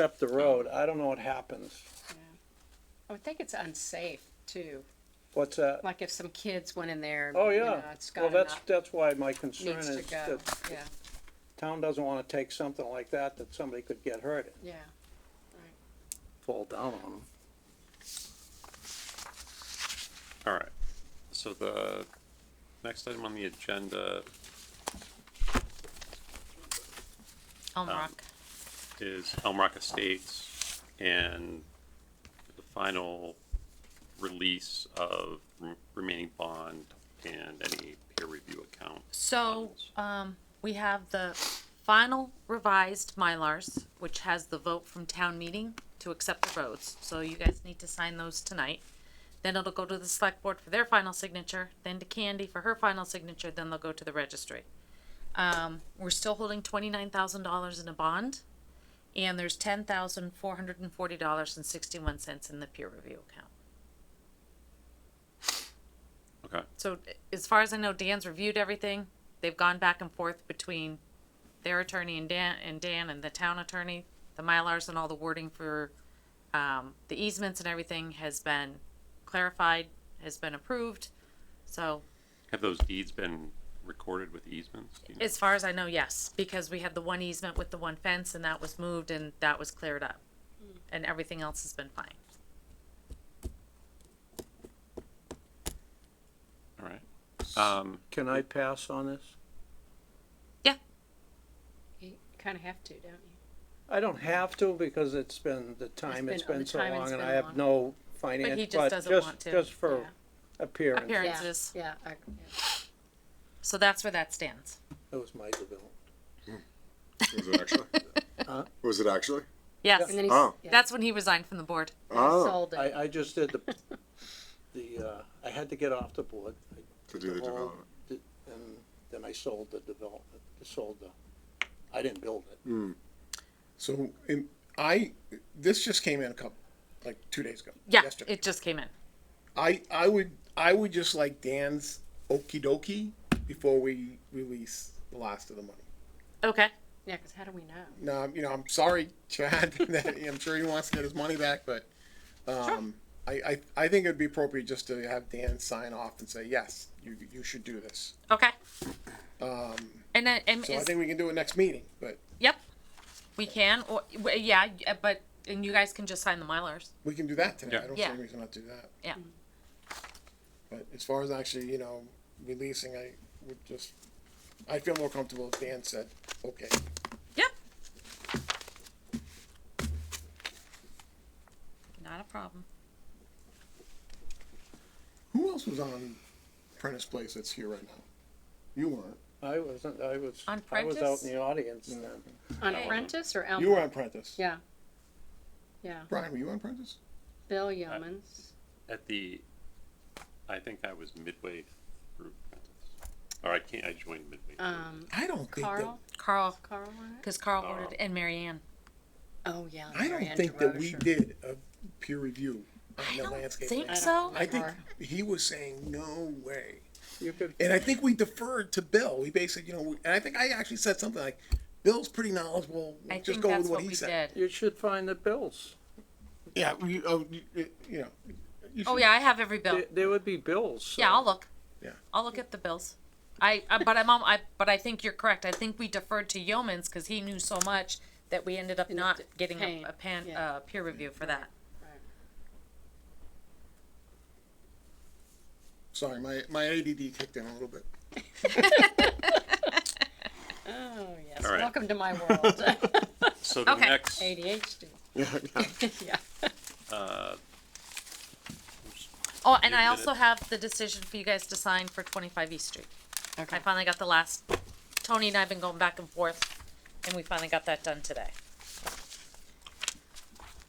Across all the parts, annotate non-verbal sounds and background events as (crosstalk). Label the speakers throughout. Speaker 1: up the road, I don't know what happens.
Speaker 2: I would think it's unsafe too.
Speaker 1: What's that?
Speaker 2: Like if some kids went in there.
Speaker 1: Oh,
Speaker 2: you
Speaker 1: yeah.
Speaker 2: know, It's
Speaker 1: Well,
Speaker 2: got
Speaker 1: that's,
Speaker 2: enough,
Speaker 1: that's why my concern
Speaker 2: needs to
Speaker 1: is
Speaker 2: go.
Speaker 1: that
Speaker 2: Yeah,
Speaker 1: town doesn't wanna take something like that, that somebody could get hurt and
Speaker 2: yeah.
Speaker 1: fall down on them.
Speaker 3: All right, so the next item on the agenda
Speaker 2: Elm Rock.
Speaker 3: is Elm Rock Estates and the final release of re- remaining bond and any peer review account.
Speaker 4: So, um, we have the final revised Mylars, which has the vote from town meeting to accept the roads. So you guys need to sign those tonight. Then it'll go to the select board for their final signature, then to Candy for her final signature, then they'll go to the registry. Um, we're still holding twenty-nine thousand dollars in a bond, and there's ten thousand four hundred and forty dollars and sixty-one cents in the peer review account.
Speaker 3: Okay,
Speaker 4: So as far as I know, Dan's reviewed everything. They've gone back and forth between their attorney and Dan and Dan and the town attorney. The Mylars and all the wording for um, the easements and everything has been clarified, has been approved. So
Speaker 3: have those deeds been recorded with easements? Do you know?
Speaker 4: as far as I know, yes, because we had the one easement with the one fence and that was moved and that was cleared up. And everything else has been fine.
Speaker 3: All right, um,
Speaker 1: Can I pass on this?
Speaker 2: You kind of have to, don't you?
Speaker 1: I don't have to because it's been, the time
Speaker 2: It's
Speaker 1: it's
Speaker 2: been-
Speaker 1: been
Speaker 2: the
Speaker 1: so
Speaker 2: time it's
Speaker 1: long and
Speaker 2: been
Speaker 1: I have
Speaker 2: long.
Speaker 1: no finance,
Speaker 4: just
Speaker 1: but
Speaker 4: doesn't
Speaker 1: just,
Speaker 4: want to.
Speaker 1: just for
Speaker 2: Yeah.
Speaker 1: appearance,
Speaker 4: Appearance.
Speaker 2: Yeah,
Speaker 4: Appearances.
Speaker 2: Yeah, I- yeah.
Speaker 4: So that's where that stands.
Speaker 1: that was my development.
Speaker 5: Was it actually? Was it actually?
Speaker 4: Yes.
Speaker 2: And then he,
Speaker 5: Oh.
Speaker 2: yeah,
Speaker 4: That's when he resigned from the board.
Speaker 5: Oh,
Speaker 2: sold it.
Speaker 1: I, I just did the, the, uh, I had to get off the board. I
Speaker 5: to do the
Speaker 1: developed
Speaker 5: development.
Speaker 1: it, And then I sold the development, sold the, I didn't build it.
Speaker 6: So in, I this just came in a couple like two days ago.
Speaker 4: Yeah,
Speaker 6: yesterday.
Speaker 4: it just came in.
Speaker 6: I I would I would just like Dan's okie dokie before we release the last of the money.
Speaker 4: Okay.
Speaker 2: Yeah, because how do we know?
Speaker 6: Now you know I'm sorry, (laughs) Chad. that I'm sure he wants to get his money back, but um, I, I I think it'd be appropriate just to have Dan sign off and say yes, you you should do this.
Speaker 4: Okay. and then, and
Speaker 6: Um, So I
Speaker 4: is-
Speaker 6: think we can do it next meeting, but
Speaker 4: yep, we can. Or w- yeah, y- uh, but and you guys can just sign the mylars.
Speaker 6: we can do that tonight.
Speaker 3: Yeah.
Speaker 6: I don't see
Speaker 4: Yeah.
Speaker 6: any reason not to do that.
Speaker 4: Yeah.
Speaker 6: But as far as actually, you know, releasing, I would just, I feel more comfortable if Dan said, okay.
Speaker 4: Yep. Not a problem.
Speaker 6: Who else was on Prentice Place that's here right now? You weren't.
Speaker 1: I wasn't, I was,
Speaker 4: On
Speaker 1: I was out
Speaker 4: Prentice?
Speaker 1: in the audience then.
Speaker 2: On Prentice or Elm?
Speaker 6: You were on Prentice.
Speaker 2: Yeah. Yeah,
Speaker 6: Brian, were you on Prentice?
Speaker 2: Bill Yeomans.
Speaker 3: at the, I think I was midway through, Prentice. or I can't, I joined midway. through.
Speaker 4: Uh,
Speaker 2: um,
Speaker 6: I don't think
Speaker 2: Carl,
Speaker 6: that,
Speaker 4: Carl,
Speaker 2: Carl on it?
Speaker 4: because
Speaker 6: Uh,
Speaker 4: Carl
Speaker 3: Oh.
Speaker 4: ordered and Marianne.
Speaker 2: Oh, yeah.
Speaker 6: I
Speaker 2: Marianne
Speaker 6: don't think that we
Speaker 2: Derosier.
Speaker 6: did a peer review on the
Speaker 4: don't
Speaker 6: landscape.
Speaker 4: think
Speaker 6: plan.
Speaker 4: so.
Speaker 6: I think
Speaker 2: Or-
Speaker 6: he was saying, no way.
Speaker 1: You could,
Speaker 6: And I think we deferred to Bill. We basically, you know, we- and I think I actually said something like, Bill's pretty knowledgeable.
Speaker 4: I
Speaker 6: We'll just
Speaker 4: think
Speaker 6: go with
Speaker 4: that's
Speaker 6: what
Speaker 4: what
Speaker 6: he
Speaker 4: we
Speaker 6: said.
Speaker 4: did.
Speaker 1: you should find the bills.
Speaker 6: Yeah, you, oh, you, you know. you
Speaker 4: Oh
Speaker 6: should-
Speaker 4: yeah, I have every bill.
Speaker 1: There, there would be bills. so-
Speaker 4: Yeah, I'll look.
Speaker 6: Yeah.
Speaker 4: I'll look at the bills. I, I but I'm on, I but I think you're correct. I think we deferred to Yeomans because he knew so much that we ended up
Speaker 2: Ended
Speaker 4: not
Speaker 2: up
Speaker 4: getting a,
Speaker 2: paying,
Speaker 4: a pan,
Speaker 2: yeah.
Speaker 4: uh, peer review for that.
Speaker 6: Sorry, my, my ADD kicked in a little bit.
Speaker 2: Oh, yes,
Speaker 3: All right.
Speaker 2: welcome to my world, (laughs)
Speaker 3: So the
Speaker 4: okay.
Speaker 3: next,
Speaker 2: ADHD,
Speaker 6: (laughs)
Speaker 2: (laughs) yeah.
Speaker 3: uh,
Speaker 4: Oh, and
Speaker 3: You
Speaker 4: I
Speaker 3: did
Speaker 4: also
Speaker 3: it.
Speaker 4: have the decision for you guys to sign for twenty-five East Street. I finally got the last, Tony and I have been going back and forth, and we finally got that done today.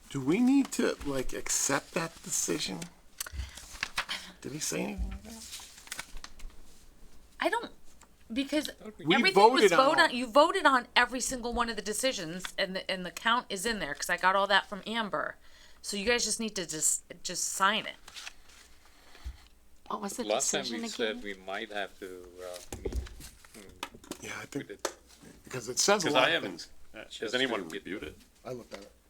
Speaker 6: Do we need to, like, accept that decision? Did he say anything?
Speaker 4: I don't, because
Speaker 6: We
Speaker 4: everything was
Speaker 6: voted on
Speaker 4: voted
Speaker 6: all-
Speaker 4: on, you voted on every single one of the decisions, and the, and the count is in there, cause I got all that from Amber. So you guys just need to just, just sign it.
Speaker 7: What Oh, was the
Speaker 8: Last time
Speaker 7: decision
Speaker 8: we
Speaker 7: again?
Speaker 8: said we might have to, uh, meet,
Speaker 6: Yeah, I
Speaker 8: we
Speaker 6: think,
Speaker 8: did,
Speaker 6: because it says a
Speaker 3: because
Speaker 6: lot
Speaker 3: I
Speaker 6: of
Speaker 3: haven't,
Speaker 6: things.
Speaker 3: has
Speaker 8: Just
Speaker 3: anyone
Speaker 8: to get
Speaker 3: reviewed it?
Speaker 6: I looked at it.